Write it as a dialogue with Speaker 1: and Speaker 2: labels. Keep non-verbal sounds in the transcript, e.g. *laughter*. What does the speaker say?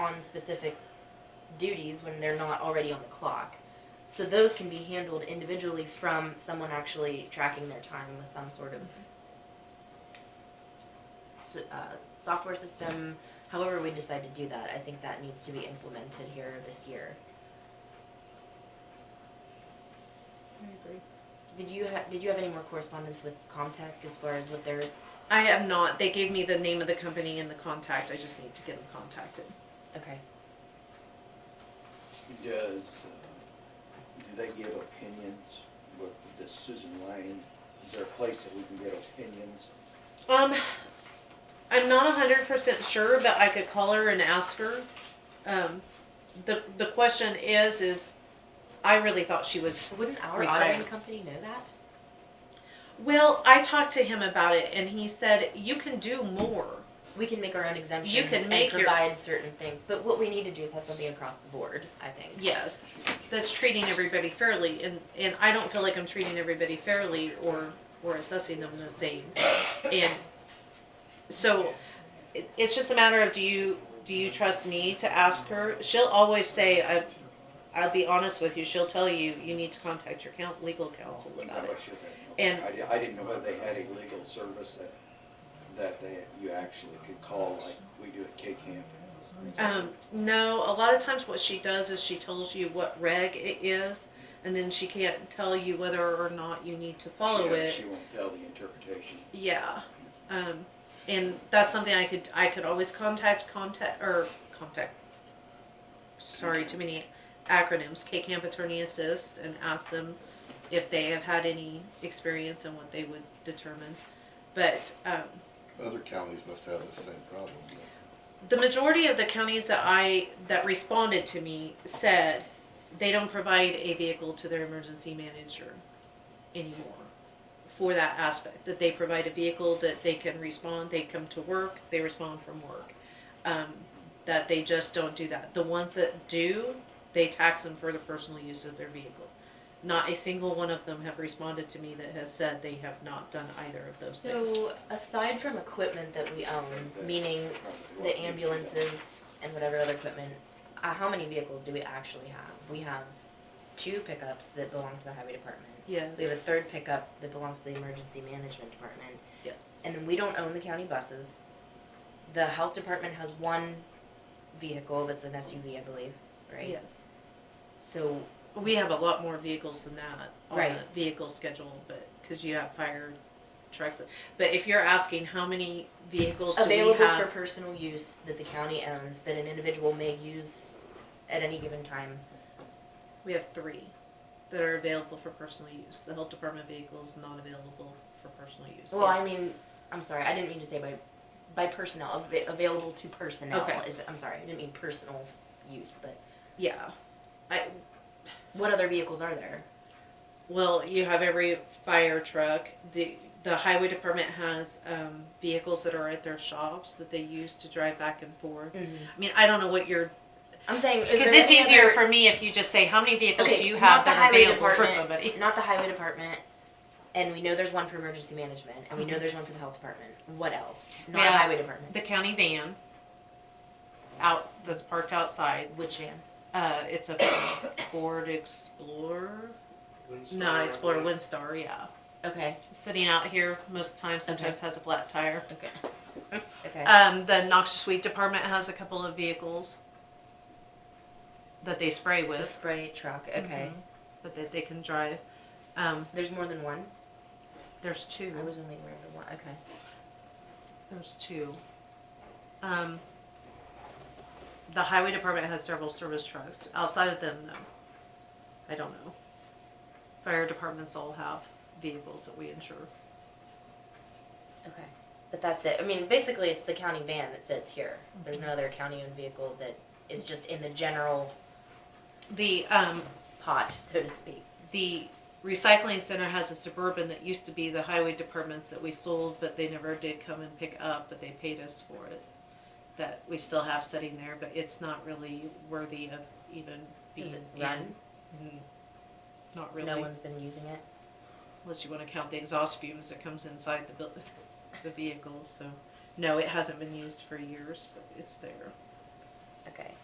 Speaker 1: on specific duties when they're not already on the clock. So those can be handled individually from someone actually tracking their time with some sort of so- uh, software system, however we decide to do that, I think that needs to be implemented here this year.
Speaker 2: I agree.
Speaker 1: Did you have, did you have any more correspondence with Comtech as far as what their,
Speaker 2: I am not. They gave me the name of the company and the contact. I just need to get them contacted.
Speaker 1: okay.
Speaker 3: Does, uh, do they give opinions with the Susan Lane? Is there a place that we can get opinions?
Speaker 2: Um, I'm not hundred percent sure, but I could call her and ask her. Um, the the question is, is I really thought she was.
Speaker 1: Wouldn't our
Speaker 2: Retired.
Speaker 1: auditing company know that?
Speaker 2: Well, I talked to him about it, and he said you can do more.
Speaker 1: We can make our own
Speaker 2: You
Speaker 1: exemptions
Speaker 2: can
Speaker 1: and
Speaker 2: make your-
Speaker 1: provide certain things, but what we need to do is have something across the board, I think.
Speaker 2: Yes, that's treating everybody fairly, and and I don't feel like I'm treating everybody fairly or or assessing them the same. And so, it, it's just a matter of do you do you trust me to ask her? She'll always say I. I'll be honest with you. She'll tell you you need to contact your coun legal counsel about it. And-
Speaker 3: I, di- I didn't know whether they had a legal service that, that they, you actually could call like we do at K Camp.
Speaker 2: Um, no, a lot of times what she does is she tells you what reg it is, and then she can't tell you whether or not you need to follow
Speaker 3: She-
Speaker 2: it.
Speaker 3: She won't tell the interpretation.
Speaker 2: Yeah, um, and that's something I could, I could always contact, contact, or contact, sorry, too many acronyms, K-CAMP Attorney Assist, and ask them if they have had any experience and what they would determine. But, um,
Speaker 4: Other counties must have the same problem.
Speaker 2: the majority of the counties that I, that responded to me said they don't provide a vehicle to their emergency manager anymore for that aspect, that they provide a vehicle that they can respond, they come to work, they respond from work. Um, that they just don't do that. The ones that do, they tax them for the personal use of their vehicle. Not a single one of them have responded to me that has said they have not done either of those things.
Speaker 1: So aside from equipment that we own, meaning the
Speaker 3: Probably what needs to be done.
Speaker 1: ambulances and whatever other equipment, uh, how many vehicles do we actually have? We have two pickups that belong to the highway department.
Speaker 2: Yes,
Speaker 1: We have a third pickup that belongs to the emergency management department,
Speaker 2: yes,
Speaker 1: and then we don't own the county buses. The health department has one vehicle that's an SUV, I believe, right?
Speaker 2: yes.
Speaker 1: So
Speaker 2: We have a lot more vehicles than that on
Speaker 1: Right.
Speaker 2: the vehicle schedule, but, because you have fire trucks. But if you're asking how many vehicles do we
Speaker 1: available for
Speaker 2: have?
Speaker 1: personal use that the county owns, that an individual may use at any given time.
Speaker 2: We have three that are available for personal use. The health department vehicle is not available for personal use.
Speaker 1: Well, I mean, I'm sorry, I didn't mean to say by, by personnel, av- available to personnel,
Speaker 2: Okay.
Speaker 1: is, I'm sorry, I didn't mean personal use, but
Speaker 2: Yeah. I,
Speaker 1: what other vehicles are there?
Speaker 2: well, you have every fire truck. The, the highway department has, um, vehicles that are at their shops that they use to drive back and forth.
Speaker 1: Mm-hmm.
Speaker 2: I mean, I don't know what your
Speaker 1: I'm saying, is
Speaker 2: Because
Speaker 1: there
Speaker 2: it's
Speaker 1: any
Speaker 2: easier
Speaker 1: other-
Speaker 2: for me if you just say, how many vehicles
Speaker 1: Okay,
Speaker 2: do you
Speaker 1: not
Speaker 2: have
Speaker 1: the
Speaker 2: that are
Speaker 1: highway
Speaker 2: available for
Speaker 1: department.
Speaker 2: *laughs* somebody?
Speaker 1: Not the highway department, and we know there's one for emergency management, and we know there's one for the health department, what else? Not
Speaker 2: Yeah.
Speaker 1: highway department,
Speaker 2: The county van out, that's parked outside,
Speaker 1: which van?
Speaker 2: uh, it's a Ford Explorer, not Explorer, Windstar, yeah.
Speaker 1: Okay,
Speaker 2: Sitting out here most of the time, sometimes has a flat tire.
Speaker 1: okay. *laughs* Okay,
Speaker 2: Um, the noxious weed department has a couple of vehicles that they spray
Speaker 1: the
Speaker 2: with,
Speaker 1: spray truck, okay,
Speaker 2: Mhm. but that they can drive. Um,
Speaker 1: Mm-hmm. there's more than one?
Speaker 2: there's two.
Speaker 1: I was only aware of the one, okay.
Speaker 2: There's two. Um, the highway department has several service trucks. Outside of them, no. I don't know. Fire departments all have vehicles that we insure.
Speaker 1: Okay, but that's it. I mean, basically, it's the county van that sits here. There's no other county-owned vehicle that is just in the general
Speaker 2: The, um,
Speaker 1: pot, so to speak.
Speaker 2: the recycling center has a suburban that used to be the highway departments that we sold, but they never did come and pick up, but they paid us for it. That we still have sitting there, but it's not really worthy of even being
Speaker 1: Does it
Speaker 2: in.
Speaker 1: run?
Speaker 2: Mm, Not really.
Speaker 1: No one's been using it.
Speaker 2: unless you want to count the exhaust fumes that comes inside the buil- *laughs* the vehicle. So, no, it hasn't been used for years, but it's there.
Speaker 1: Okay,